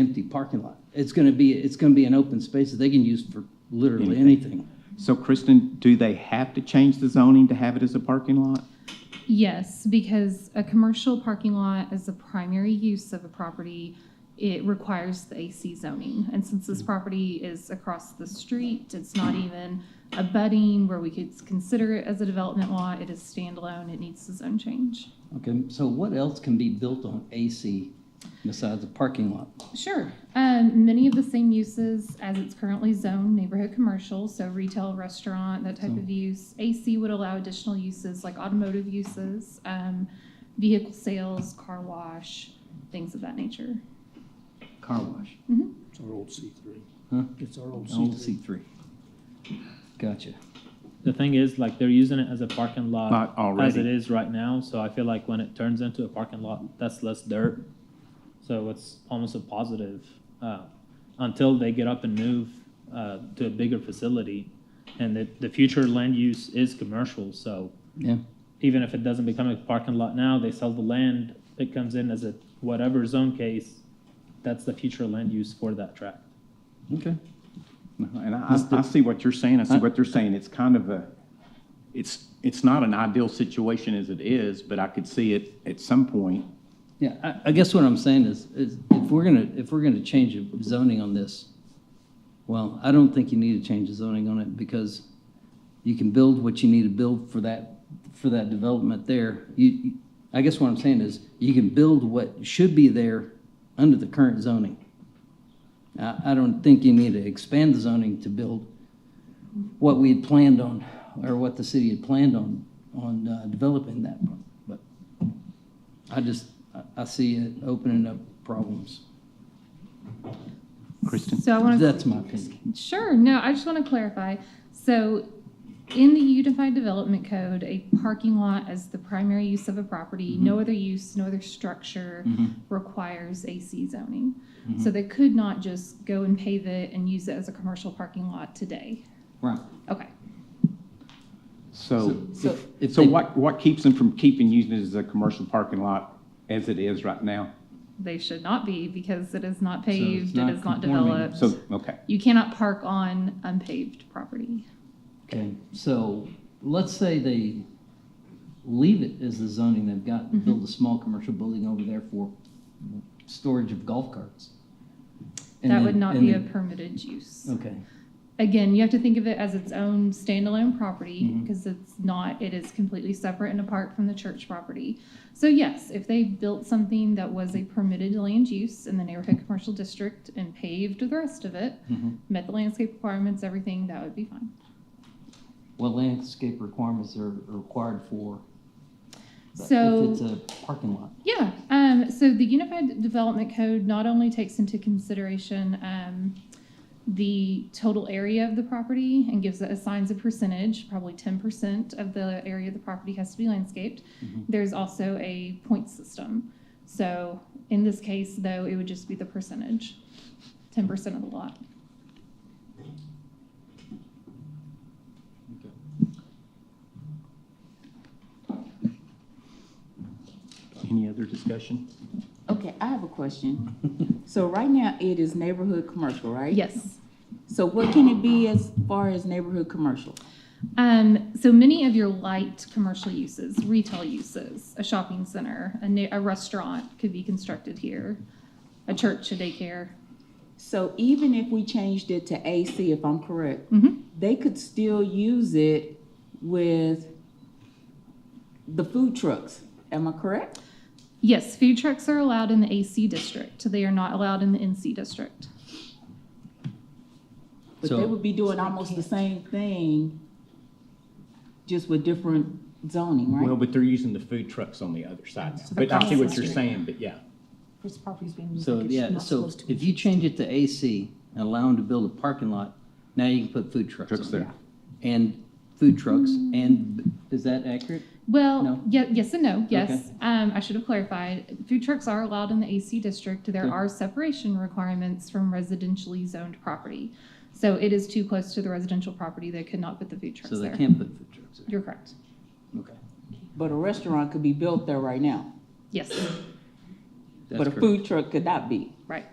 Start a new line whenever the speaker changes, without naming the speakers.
empty parking lot. It's gonna be, it's gonna be an open space that they can use for literally
Anything.
anything.
So Kristen, do they have to change the zoning to have it as a parking lot?
Yes, because a commercial parking lot is the primary use of a property. It requires the AC zoning. And since this property is across the street, it's not even a budding where we could consider it as a development lot. It is standalone. It needs the zone change.
Okay, so what else can be built on AC besides a parking lot?
Sure. Um, many of the same uses as it's currently zoned, neighborhood commercial, so retail, restaurant, that type
So-
of use. AC would allow additional uses like automotive uses, um, vehicle sales, car wash, things of that nature.
Car wash,
It's our old C three.
Huh?
It's our old
old
C
C
three.
three. Gotcha.
The thing is, like, they're using it as a parking lot.
Not already.
As it is right now, so I feel like when it turns into a parking lot, that's less dirt. So it's almost a positive, uh, until they get up and move, uh, to a bigger facility. And the, the future land use is commercial, so
Yeah,
even if it doesn't become a parking lot now, they sell the land, it comes in as a whatever zone case, that's the future land use for that tract.
okay.
Uh-huh. And I, I- I see what you're saying, I see what they're saying, it's kind of a, it's, it's not an ideal situation as it is, but I could see it at some point.
Yeah, I, I guess what I'm saying is, is if we're gonna, if we're gonna change the zoning on this, well, I don't think you need to change the zoning on it because you can build what you need to build for that, for that development there. You, you- I guess what I'm saying is, you can build what should be there under the current zoning. I, I don't think you need to expand the zoning to build what we had planned on, or what the city had planned on, on uh, developing that, but. I just, I- I see it opening up problems.
Kristen?
So I want to.
That's my opinion.
Sure, no, I just want to clarify. So in the Unified Development Code, a parking lot as the primary use of a property,
Mm-hmm.
no other use, no other structure requires AC zoning.
Mm-hmm.
So they could not just go and pave it and use it as a commercial parking lot today.
Right.
Okay.
So,
So if
so
they-
what, what keeps them from keeping using it as a commercial parking lot as it is right now?
They should not be because it is not
it's
paved, it
not
is not
conforming.
developed.
So, okay.
You cannot park on unpaved property.
Okay, so let's say they leave it as the zoning they've got,
Mm-hmm.
and build a small commercial building over there for storage of golf carts. And
That
then-
would not
and
be a
then-
permitted use.
Okay,
again, you have to think of it as its own standalone property because it's not, it is completely separate and apart from the church property. So yes, if they built something that was a permitted land use in the neighborhood commercial district and paved the rest of it,
Mm-hmm.
met the landscape requirements, everything, that would be fine.
what landscape requirements are are required for? the-
So-
If it's a parking lot.
Yeah, um, so the Unified Development Code not only takes into consideration, um, the total area of the property and gives it assigns a percentage, probably ten percent of the area of the property has to be landscaped. There's also a point system. So in this case, though, it would just be the percentage, ten percent of the lot.
Any other discussion?
Okay, I have a question. So right now, it is neighborhood commercial, right?
Yes.
So what can it be as far as neighborhood commercial?
Um, so many of your light commercial uses, retail uses, a shopping center, a, na- a restaurant could be constructed here, a church, a daycare.
So even if we changed it to AC, if I'm correct,
Mm-hmm.
Mhm.
they could still use it with the food trucks. Am I correct?
Yes, food trucks are allowed in the AC district. They are not allowed in the NC district.
But
So-
they would be doing almost the same thing, just with different zoning,
Well,
right?
but they're using the food trucks on the other side now.
So
But I see what you're
they're-
saying, but yeah.
This property's being used
So,
like it's
yeah,
not
so
supposed to be.
if you change it to AC and allow them to build a parking lot, now you can put food trucks
Trucks
on
there.
there. And food trucks,
Mm.
and, is that accurate? No.
Well, ye- yes and no, yes.
Okay.
Um, I should have clarified. Food trucks are allowed in the AC district. There
Okay.
are separation requirements from residentially zoned property. So it is too close to the residential property. They could not put the food trucks
So they
there.
can't put food trucks there?
You're correct.
Okay.
But a restaurant could be built there right now,
Yes,
That's
but a
correct.
food truck could not be.
right.